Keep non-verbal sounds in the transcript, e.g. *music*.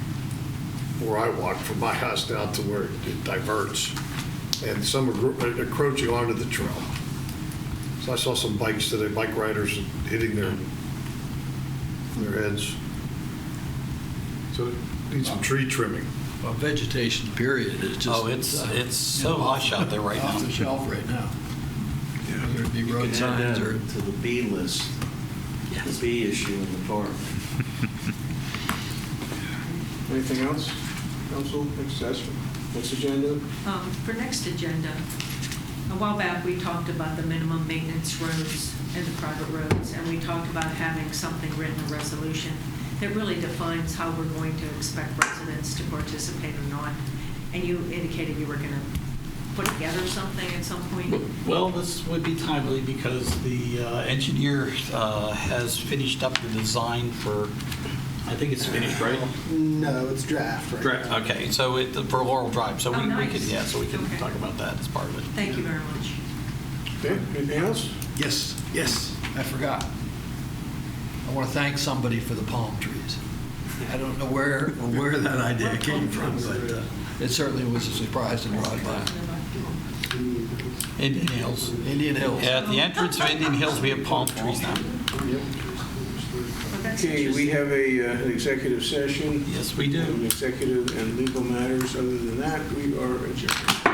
where I walk from my house down to where it diverts, and some are gro- uh, encroaching onto the trail. So I saw some bikes today, bike riders hitting their, their heads. So it needs some tree trimming. Well, vegetation period is just. Oh, it's- it's so lush out there right now. *laughs* Off the shelf right now. Whether it be road Add that signs or, To the B list, the B issue in the park. Anything else, council, next session, next agenda? Um, For next agenda, a while back, we talked about the minimum maintenance roads and the private roads, and we talked about having something written, a resolution, that really defines how we're going to expect residents to participate or not. And you indicated you were going to put together something at some point. Well, this would be timely because the uh, engineer uh, has finished up the design for, I think it's finished, right? No, it's draft right Correct. now. Okay, so it, for Laurel Drive, so we Oh, we can, nice. yeah, so we can Okay. talk about that as part of it. Thank you very much. Okay, anything else? yes, yes, I forgot. I want to thank somebody for the palm trees. I don't know where, where that idea came from, but uh, it certainly was a surprise and brought by Indian Hills. Indian Hills. At the entrance of Indian Hills, we have palm trees now. But that's Okay, we interesting. have a, uh, an executive session, Yes, we do. an executive and legal matters, other than that, we are adjourned.